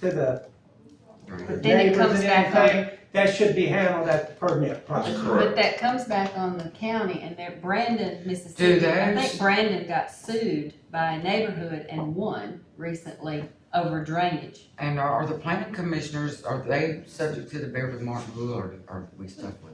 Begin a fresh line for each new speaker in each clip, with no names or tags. to the.
But
then it
neighbors
comes
and
back on-
everything, That should be handled at the permit
That's
process.
correct.
But that comes back on the county and they're Brandon, Mississippi. I
those-
think Brandon got sued by a neighborhood and won recently over drainage.
And are, are the planning commissioners, are they subject to the Beverly Martin rule or are we stuck with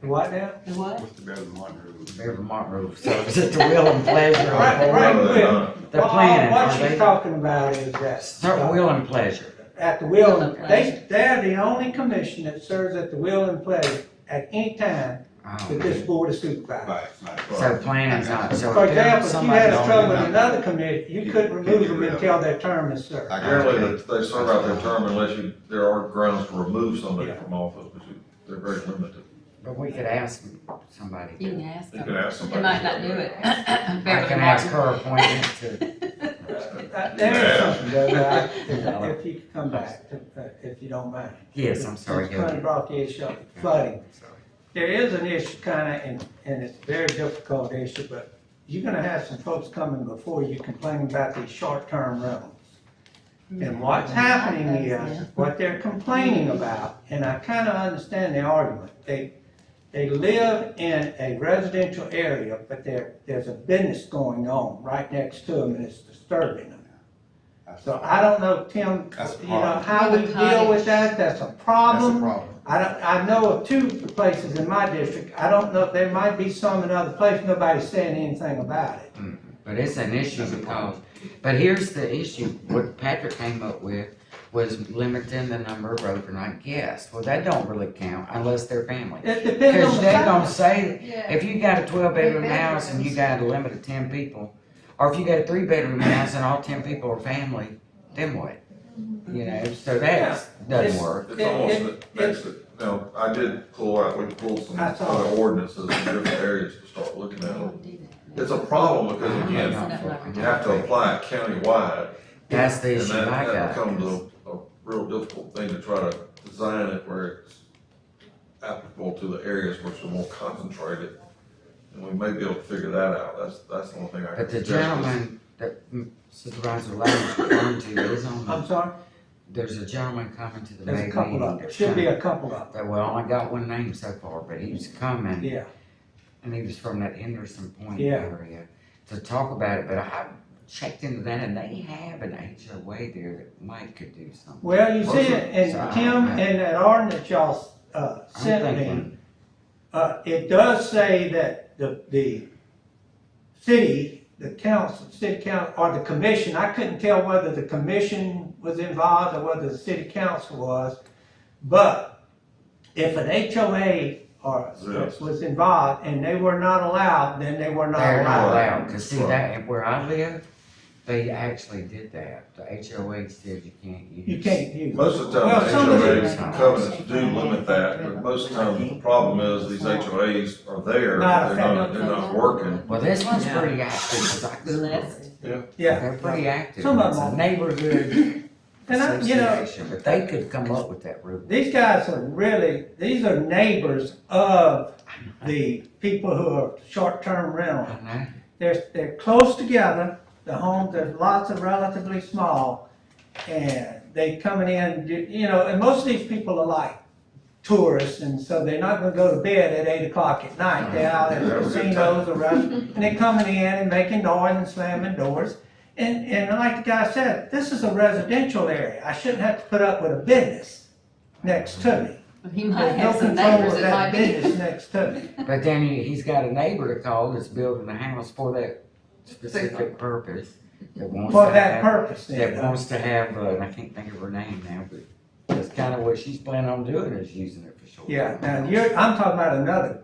What now?
The what?
What's the better than one room?
the Beverly Martin rule? So is it the will and pleasure
Right,
of
right.
the board? They're
Well,
planning,
What
are
she's
they?
talking about is
Certain
that,
will and pleasure.
at the will, and-
Will and
they, they're the only commission that serves at the will and pleasure at any time
Oh,
that this board is supervised.
Right, right.
So planning's not, so.
For
if there-
example, if you
somebody
had
don't-
trouble with
know.
another committee, you
You
couldn't
can't
remove
get
them
rid of
until their term is served.
I got
Apparently,
you.
they- they serve out their term unless you, there are grounds to remove somebody
Yeah.
from office, but you- they're very limited.
But we could ask somebody.
You can ask
You could
them.
ask
They
somebody.
might not do it.
I
Beverly
can ask
Martin.
her appointment to,
Uh, There is something, Doug, I- if if you could come back, if- uh, if you don't mind.
yes, I'm sorry,
Since Connie
Gilligan.
brought the issue up, flooding. There is an issue kinda, and, and it's a very difficult issue, but you're gonna have some folks coming before you complaining about these short-term rentals. And what's
Mm-hmm.
happening is, what they're complaining about, and I kinda understand the argument, they, they live in a residential area, but there, there's a business going on right next to them, and it's disturbing them.
That's
So I don't know, Tim,
That's a
you know,
problem.
how we
With
deal with
cottage.
that, that's a
That's
problem.
a problem.
I don't, I know of two places in my district, I don't know, there might be some in other places, nobody's saying anything about it.
But it's an issue because, but here's the issue, what Patrick came up with was limiting the number of overnight guests. Well, that don't really count unless they're family.
It depends on
Cause
the
they gonna
size.
say,
Yeah.
if you got a twelve bedroom
Three
house and you got a limit of ten people, or if you got a three bedroom house and all ten people are family, then what? You know, so that doesn't
It's-
work.
It's
It-
almost,
it-
it makes it, you know, I did pull out, we pulled some
I saw
other
it.
ordinances in different areas to start looking at.
Don't do that.
It's a problem because
Yeah.
again, you have to apply it countywide.
That's the
And
issue
that,
I
that
got.
becomes a, a real difficult thing to try to design it where it's applicable to the areas which are more concentrated. And we may be able to figure that out. That's, that's the only thing I can
But the
suggest.
gentleman that Supervisor Lowe was referring to is on,
I'm
the-
sorry,
there's a gentleman coming to the May
there's a
meeting.
couple of, it should be a couple of,
That, well, I got one name so far, but he was coming.
yeah.
and he was from that Henderson Point
Yeah.
area to talk about it. But I checked into that, and they have an HOA there that might could do something.
Well, you see, and
Sorry.
Tim, in that ordinance y'all, uh,
I'm
sent me,
thinking,
uh, it does say that the, the city, the council, city council, or the commission, I couldn't tell whether the commission was involved or whether the city council was, but if an HOA or
Yes.
was involved and they were not allowed, then they were not
they're not
allowed.
allowed because see that and where I live, they actually did that. The HOA said you can't use.
You can't use.
Most of the
Well,
time, the
some of
HOA
it-
covenants do limit that, but most of the time, the problem is these HOAs are there,
Not
they're not, they're not working.
Well, this one's
Yeah.
pretty active. 'cause I Googled it. They're
Yeah.
pretty active.
Some of
It's a
them
neighborhood
And I, you know,
association, but they could come up with that rule.
these guys are really, these are neighbors of the people who are short-term rental.
I know.
They're, they're close together, the homes, there's lots of relatively small, and they coming in, you- you know, and most of these people are like tourists, and so they're not gonna go to bed at eight o'clock at night, they're out at
Yeah, we're good
casinos or restaurants, and they're coming in and making noise and slamming doors. And, and like the guy said, this is a residential area, I shouldn't have to put up with a business next to me.
He might
There's no
have some
control
neighbors
of
that might
that
be.
business next to me.
But then he, he's got a neighbor to call that's building a house for that specific purpose. That wants
For
to
that
have-
purpose, then.
That wants to have, uh, and I can't think of her name now, but that's kinda what she's planning on doing is using it for short.
Yeah, now you're, I'm talking about another,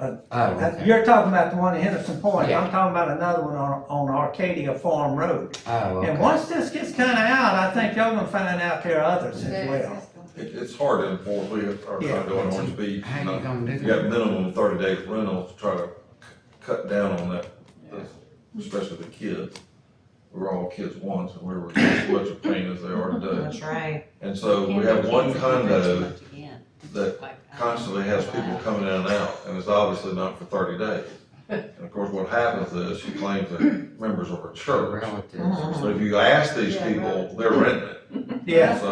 Oh, okay.
you're talking about the one in Henderson Point,
Yeah.
I'm talking about another one on, on Arcadia Farm Road.
Oh,
And
okay.
once this gets kinda out, I think y'all gonna find out there are others as well.
It, it's hard to enforce, we are trying to do in Orange Beach,
How you
you
gonna do
got
that?
minimum thirty days rental to try to c- cut down on that, especially the kids. We were all kids once, and we were as much a pain as they are today.
That's right.
And so we have one condo
Again.
that constantly has people coming in and out, and it's obviously not for thirty days. And of course, what happens is she claims that members of her church.
relatives.
So if you ask these people, they're renting it.
Yeah.
So